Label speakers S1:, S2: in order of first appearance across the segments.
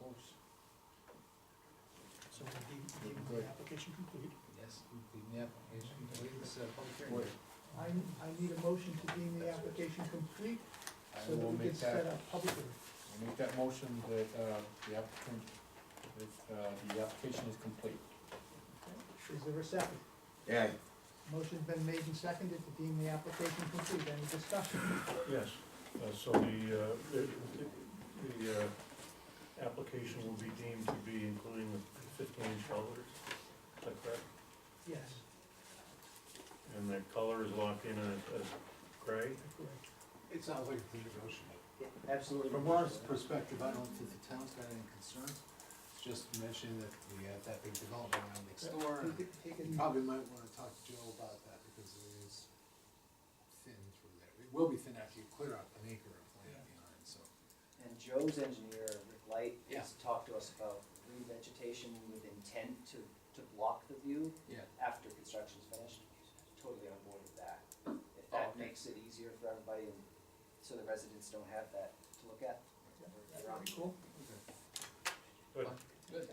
S1: course.
S2: So we gave, gave him the application complete.
S1: Yes, the application, complete. this is a public hearing.
S3: Wait.
S2: I, I need a motion to deem the application complete
S3: I
S2: so that
S3: will make
S2: we can set
S3: that,
S2: up public hearing.
S3: I'll make that motion that, uh, the applicant, that, uh, the application is complete.
S2: Is there a second?
S4: Yeah,
S2: Motion's been made and seconded to deem the application complete. Any discussion?
S5: Yes, uh, so the, uh, the, the, the, uh, application will be deemed to be including the fifteen inch colors, is that correct?
S2: Yes,
S5: And the color is locked in as, as gray?
S2: correct.
S1: It sounds like it's negotiable.
S4: absolutely.
S1: From our perspective, I don't think the town's got any concern. It's just mentioning that we have that big development around next door.
S2: He
S1: and
S2: could- he
S1: You
S2: can-
S1: probably might wanna talk to Joe about that because it is thin through there. It will be thin after you clear out an acre of land behind, so.
S4: And Joe's engineer, Rick Light,
S1: Yeah.
S4: has talked to us about revegetation with intent to, to block the view
S1: Yeah.
S4: after construction's finished. Totally on board with that. If that
S1: Okay.
S4: makes it easier for everybody and so the residents don't have that to look at.
S2: That's pretty cool.
S5: Good.
S1: Good.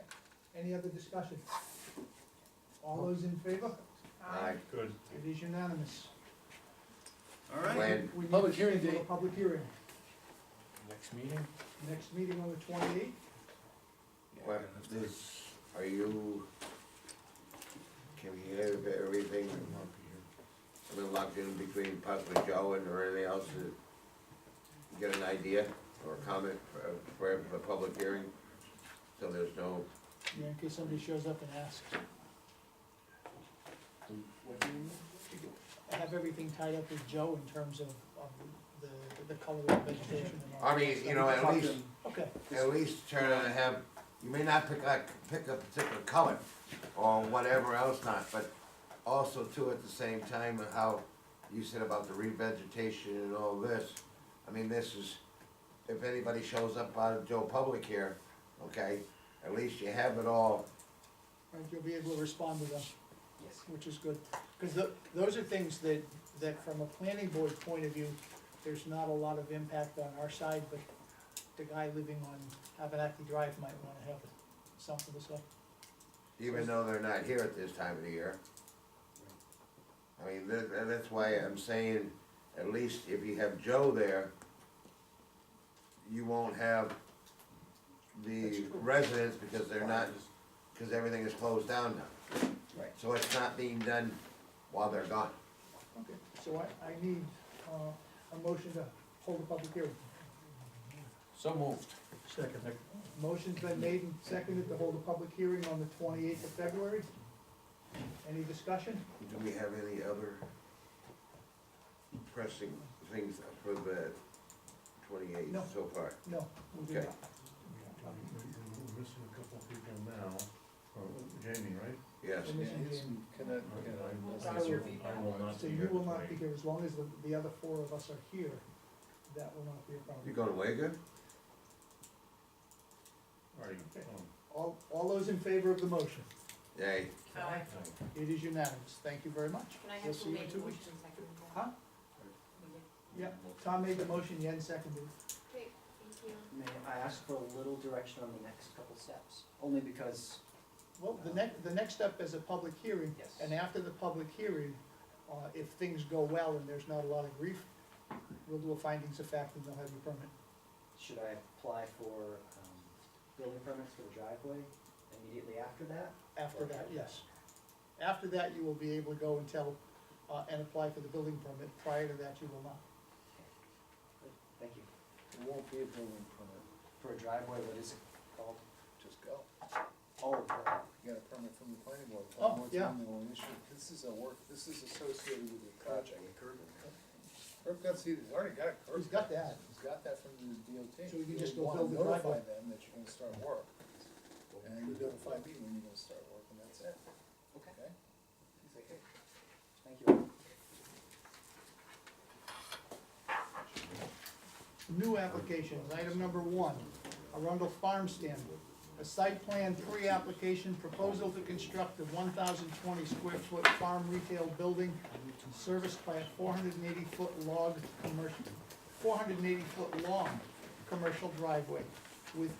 S2: Any other discussion? All those in favor?
S6: Aye.
S5: Good.
S2: It is unanimous.
S6: All right.
S2: We
S6: When?
S2: need to
S1: Public hearing
S2: schedule a
S1: date.
S2: Public hearing.
S3: Next meeting?
S2: Next meeting on the twenty-eighth.
S6: What is, are you, can you hear of everything? I've been locked in between Puck and Joe and or anything else to get an idea or comment for, for the public hearing? So there's no,
S2: Yeah, in case somebody shows up and asks.
S4: What do you need?
S2: I have everything tied up with Joe in terms of, of the, the color of vegetation and all.
S6: I mean, you know, at least,
S2: Okay,
S6: at least turn on and have, you may not pick a, pick a particular color or whatever else not, but also too, at the same time, how you said about the revegetation and all this, I mean, this is, if anybody shows up out of Joe Public here, okay, at least you have it all,
S2: and you'll be able to respond to them,
S4: Yes.
S2: which is good. Cause tho- those are things that, that from a planning board point of view, there's not a lot of impact on our side, but the guy living on Abenaki Drive might wanna have something to say.
S6: even though they're not here at this time of the year. I mean, that, that- that's why I'm saying, at least if you have Joe there, you won't have the residents because they're not, because everything is closed down now.
S4: Right.
S6: So it's not being done while they're gone.
S2: Okay, so I, I need, uh, a motion to hold a public hearing.
S3: So moved.
S5: Second.
S2: Motion's been made and seconded to hold a public hearing on the twenty-eighth of February. Any discussion?
S6: Do we have any other pressing things for the twenty-eighth
S2: No.
S6: so far?
S2: No, we do
S6: Okay.
S2: not.
S5: We're missing a couple of people now, Or Jamie, right?
S6: Yes,
S2: We're missing
S1: Yeah, it's-
S2: Jamie.
S1: Can I, can I?
S5: I
S2: That's your
S5: will- I will not
S2: So
S5: be
S2: you
S5: here
S2: will not be
S5: tonight.
S2: here, as long as the, the other four of us are here, that will not be a problem.
S6: you going away good?
S5: Are you,
S2: Okay.
S5: um,
S2: All, all those in favor of the motion,
S6: Yay.
S7: Aye.
S2: it is unanimous, thank you very much.
S7: Can I
S2: We'll
S7: have
S2: see
S7: to
S2: you
S7: make
S2: in
S7: a
S2: two
S7: motion
S2: weeks.
S7: second?
S2: Huh? Yeah, Tom made the motion, Yen seconded.
S7: Great, thank you.
S4: May I ask for a little direction on the next couple steps? Only because,
S2: Well, the next, the next step is a public hearing,
S4: yes.
S2: and after the public hearing, uh, if things go well and there's not a lot of grief, we'll do a findings of fact and they'll have your permit.
S4: Should I apply for um, building permits for the driveway immediately after that?
S2: After that, yes. After that, you will be able to go and tell, uh, and apply for the building permit. Prior to that, you will not.
S4: Good, Thank you. It won't be a building permit. For a driveway, what is it called?
S1: Just go.
S4: Oh, uh,
S1: You got a permit from the planning board.
S2: Oh,
S1: One more
S2: yeah.
S1: time, they will issue it. This is a work, this is associated with the project. Herb got, see, he's already got it.
S2: He's got that.
S1: He's got that from the DOT.
S2: So we can just go
S1: wanna
S2: build the
S1: Notify
S2: driveway.
S1: them that you're gonna start work, and then you notify me when you're gonna start work, and that's it,
S4: okay.
S1: okay?
S4: Thank you.
S2: New applications, item number one, Arundel Farm Stand. A site plan pre-application proposal to construct a one thousand twenty square foot farm retail building serviced by a four hundred and eighty foot log commercial, four hundred and eighty foot long commercial driveway with